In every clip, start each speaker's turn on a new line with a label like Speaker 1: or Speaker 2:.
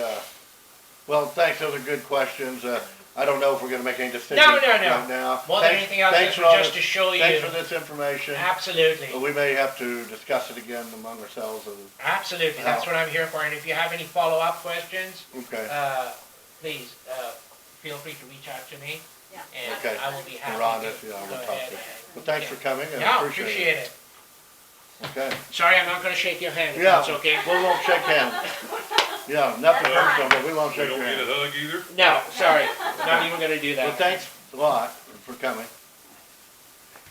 Speaker 1: Uh, Well, thanks, those are good questions. Uh, I don't know if we're gonna make any decisions
Speaker 2: no,
Speaker 1: right
Speaker 2: no.
Speaker 1: now.
Speaker 2: More than
Speaker 1: Thanks-
Speaker 2: anything else,
Speaker 1: thanks
Speaker 2: it's
Speaker 1: for all
Speaker 2: just
Speaker 1: this-
Speaker 2: to show
Speaker 1: Thanks
Speaker 2: you-
Speaker 1: for Oh, this information.
Speaker 2: Absolutely,
Speaker 1: But We may have to discuss it again among ourselves, and-
Speaker 2: absolutely.
Speaker 1: Oh.
Speaker 2: That's what I'm here for. And if you have any follow-up questions,
Speaker 1: okay.
Speaker 2: uh, please, uh, feel free to reach out to me
Speaker 3: Yeah.
Speaker 2: and
Speaker 1: Okay.
Speaker 2: I will be happy
Speaker 1: We're
Speaker 2: to go
Speaker 1: on it, yeah, we'll talk
Speaker 2: ahead.
Speaker 1: to you. Well, thanks for coming,
Speaker 2: Yeah,
Speaker 1: I
Speaker 2: appreciate
Speaker 1: appreciate it.
Speaker 2: it.
Speaker 1: Okay,
Speaker 2: Sorry, I'm not gonna shake your hand, if
Speaker 1: Yeah.
Speaker 2: that's okay?
Speaker 1: we won't shake hands. Yeah, nothing
Speaker 3: That's
Speaker 1: personal, but we won't
Speaker 4: We
Speaker 1: shake
Speaker 4: don't
Speaker 1: your
Speaker 4: get a
Speaker 1: hand.
Speaker 4: hug either?
Speaker 2: No, sorry, not even gonna do
Speaker 1: Well,
Speaker 2: that.
Speaker 1: thanks a lot for coming.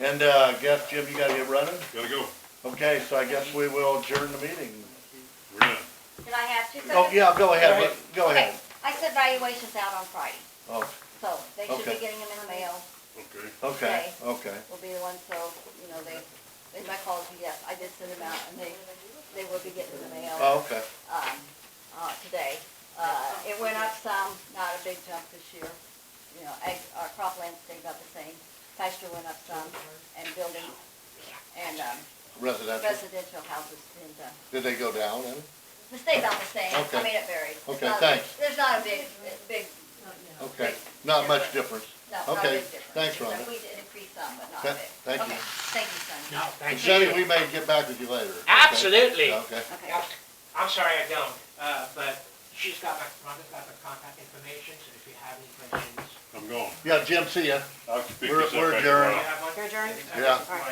Speaker 1: And, uh, guess, Jim, you gotta get running?
Speaker 4: Gotta go.
Speaker 1: Okay, so I guess we will adjourn the meeting.
Speaker 4: We're done.
Speaker 3: Can I have two seconds?
Speaker 1: Oh, yeah, go ahead, but- go
Speaker 3: Okay,
Speaker 1: ahead.
Speaker 3: I said valuation's out on Friday,
Speaker 1: Oh,
Speaker 3: so they should
Speaker 1: Okay.
Speaker 3: be getting them in the mail,
Speaker 4: Okay.
Speaker 1: okay, okay.
Speaker 3: will be the one, so, you know, they, they might call you, yes, I did send them out, and they, they will be getting the mail.
Speaker 1: Oh, okay.
Speaker 3: um, uh, today. Uh, it went up some, not a big jump this year. You know, ag, uh, cropland stayed about the same. Pasture went up some and building and, um,
Speaker 1: Residential.
Speaker 3: residential houses and, uh,
Speaker 1: Did they go down then?
Speaker 3: the stayed about the same.
Speaker 1: Okay.
Speaker 3: I mean, it varied. It's
Speaker 1: Okay,
Speaker 3: not a-
Speaker 1: thanks.
Speaker 3: There's not a big, a big,
Speaker 1: Okay, not much difference.
Speaker 3: no, not a
Speaker 1: Okay,
Speaker 3: big difference.
Speaker 1: thanks,
Speaker 3: Except
Speaker 1: Rhonda.
Speaker 3: We did increase some, but not
Speaker 1: Th-
Speaker 3: a big.
Speaker 1: thank you.
Speaker 3: Okay, Thank you, Sonia.
Speaker 2: No,
Speaker 1: And
Speaker 2: thank
Speaker 1: Jenny, we
Speaker 2: you.
Speaker 1: may get back with you later. okay?
Speaker 2: Absolutely.
Speaker 1: Okay,
Speaker 3: Okay.
Speaker 2: Yep. I'm sorry I don't, uh, but she's got my, Rhonda's got my contact information, so if you have any questions.
Speaker 4: I'm gone.
Speaker 1: yeah, Jim, see ya.
Speaker 4: I'll pick
Speaker 1: We're-
Speaker 4: this up
Speaker 1: we're
Speaker 4: back
Speaker 1: adjourned.
Speaker 4: tomorrow.
Speaker 2: You have one?
Speaker 3: Your adjourn?
Speaker 1: Yeah.
Speaker 3: All right.